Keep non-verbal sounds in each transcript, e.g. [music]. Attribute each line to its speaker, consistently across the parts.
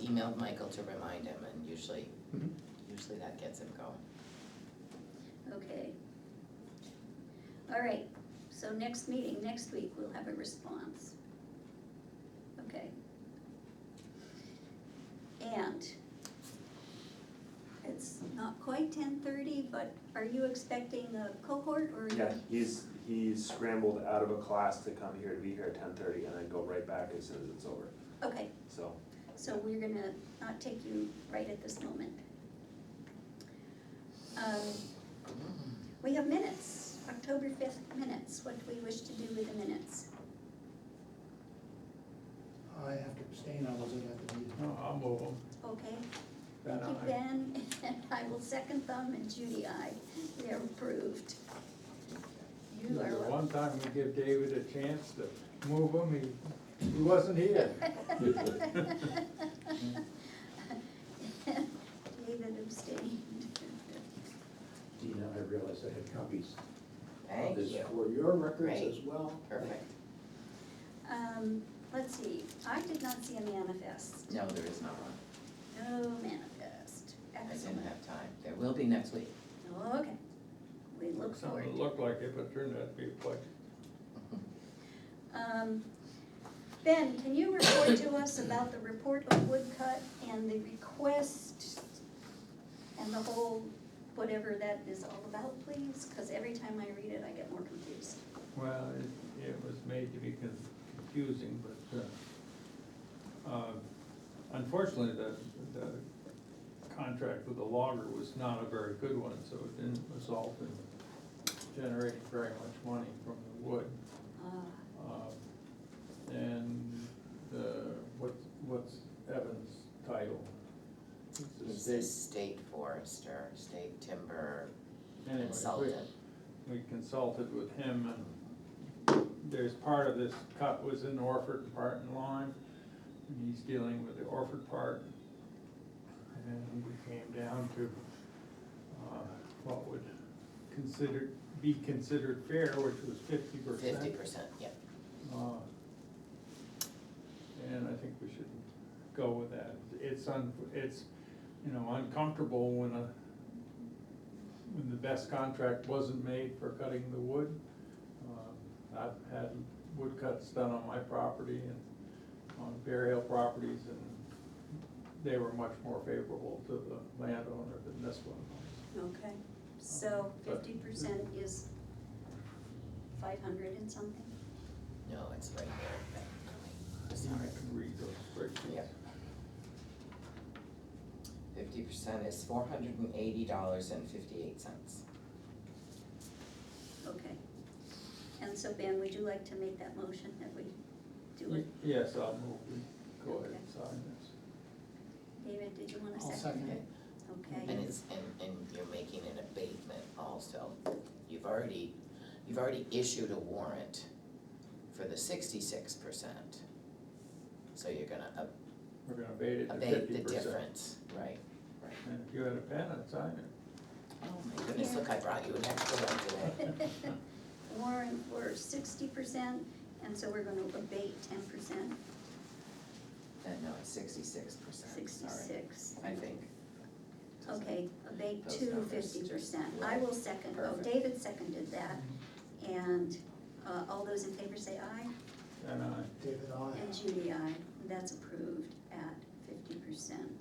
Speaker 1: emailed Michael to remind him and usually,
Speaker 2: Mhm.
Speaker 1: usually that gets him going.
Speaker 3: Okay. All right, so next meeting, next week, we'll have a response. Okay. And it's not quite ten thirty, but are you expecting a cohort or?
Speaker 4: Yeah, he's, he scrambled out of a class to come here to be here at ten thirty and then go right back as soon as it's over,
Speaker 3: Okay,
Speaker 4: so.
Speaker 3: so we're gonna not take you right at this moment. Um, We have minutes, October fifth minutes, what do we wish to do with the minutes?
Speaker 2: I have to abstain, I wasn't at the meeting.
Speaker 5: No, I'll move them.
Speaker 3: Okay,
Speaker 5: Ben,
Speaker 3: thank you,
Speaker 5: aye.
Speaker 3: Ben, [laughs] and I will second them, and Judy, I, they're approved. You
Speaker 5: The
Speaker 3: are [laughs]
Speaker 5: one time we give David a chance to move him, he, he wasn't here.
Speaker 1: Mm-hmm.
Speaker 3: David abstained.
Speaker 6: Dina, I realized I had copies of
Speaker 1: Thank
Speaker 6: this
Speaker 1: you,
Speaker 6: for your records
Speaker 1: Great.
Speaker 6: as well.
Speaker 1: perfect.
Speaker 3: Um, let's see, I did not see a manifest,
Speaker 1: No, there is not one.
Speaker 3: no manifest,
Speaker 1: I
Speaker 3: excellent,
Speaker 1: didn't have time. There will be next week.
Speaker 3: okay, we look forward to
Speaker 5: Something
Speaker 3: it.
Speaker 5: looked like it, but turned out to be a plug.
Speaker 3: Um, Ben, can you report to us about the report of woodcut and the request and the whole, whatever that is all about, please? Because every time I read it, I get more confused.
Speaker 5: Well, it, it was made to be con- confusing, but, uh, uh, unfortunately, the, the contract with the logger was not a very good one, so it didn't result in generating very much money from the wood.
Speaker 3: Uh,
Speaker 5: Um, And the, what, what's Evan's title?
Speaker 1: He's the state forester, state timber
Speaker 5: Anyway, we-
Speaker 1: consultant.
Speaker 5: We consulted with him and there's part of this cut was in Orford and part in Lyme. And he's dealing with the Orford part. And we came down to, uh, what would considered, be considered fair, which was fifty percent.
Speaker 1: Fifty percent, yep.
Speaker 5: Uh, And I think we should go with that. It's un, it's, you know, uncomfortable when a, when the best contract wasn't made for cutting the wood. Um, I've had wood cuts done on my property and on Bear Hill properties, and they were much more favorable to the landowner than this one.
Speaker 3: Okay, so
Speaker 5: But-
Speaker 3: fifty percent is five hundred and something?
Speaker 1: No, it's right there.
Speaker 5: I
Speaker 1: Sorry.
Speaker 5: can read those spreadsheets.
Speaker 1: Yep. Fifty percent is four hundred and eighty dollars and fifty-eight cents.
Speaker 3: Okay. And so Ben, would you like to make that motion that we do it?
Speaker 5: Yes, I'll move, we go ahead and sign this.
Speaker 3: David, did you want to
Speaker 2: I'll
Speaker 3: second?
Speaker 2: second
Speaker 1: Okay.
Speaker 2: it.
Speaker 3: Okay,
Speaker 1: And it's, and, and you're making an abatement also. You've already, you've already issued a warrant for the sixty-six percent. So you're gonna ab-
Speaker 5: We're gonna abate it to fifty
Speaker 1: abate
Speaker 5: percent.
Speaker 1: the difference, right?
Speaker 5: And if you had a pen, I'd sign it.
Speaker 1: Oh my goodness, look, I brought you an extra one today. [laughs]
Speaker 3: Warren, we're sixty percent, and so we're gonna abate ten percent,
Speaker 1: Uh, no, it's sixty-six percent, sorry,
Speaker 3: sixty-six.
Speaker 1: I think.
Speaker 3: Okay, abate
Speaker 1: Those
Speaker 3: to
Speaker 1: numbers
Speaker 3: fifty
Speaker 1: just-
Speaker 3: percent. I will second, oh,
Speaker 1: Perfect. Mm-hmm.
Speaker 3: David seconded that, and, uh, all those in favor say aye,
Speaker 5: And I,
Speaker 2: David, I.
Speaker 3: and Judy, aye. That's approved at fifty percent.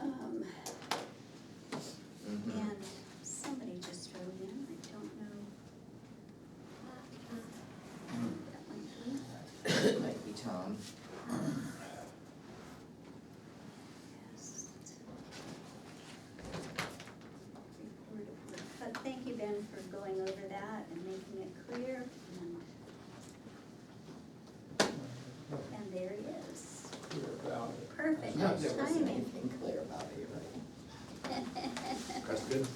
Speaker 3: Um,
Speaker 1: Mhm.
Speaker 3: and somebody just wrote in, I don't know. That
Speaker 1: [coughs]
Speaker 3: might be.
Speaker 1: Might be Tom.
Speaker 3: But thank you, Ben, for going over that and making it clear, and, and there it is.
Speaker 5: we're about it.
Speaker 3: Perfect
Speaker 1: There wasn't
Speaker 3: timing.
Speaker 1: anything clear about it, you're right.
Speaker 6: Question?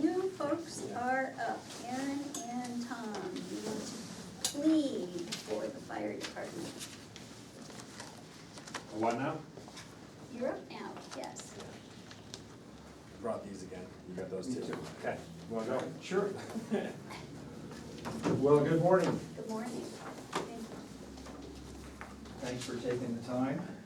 Speaker 3: You folks are up, Aaron and Tom, you want to plead for the fire department.
Speaker 4: What now?
Speaker 3: You're up now, yes.
Speaker 4: Brought these again, you got those
Speaker 5: too.
Speaker 4: Okay, you wanna go? Sure. Well, good morning.
Speaker 3: Good morning. Thank you.
Speaker 7: Thanks for taking the time.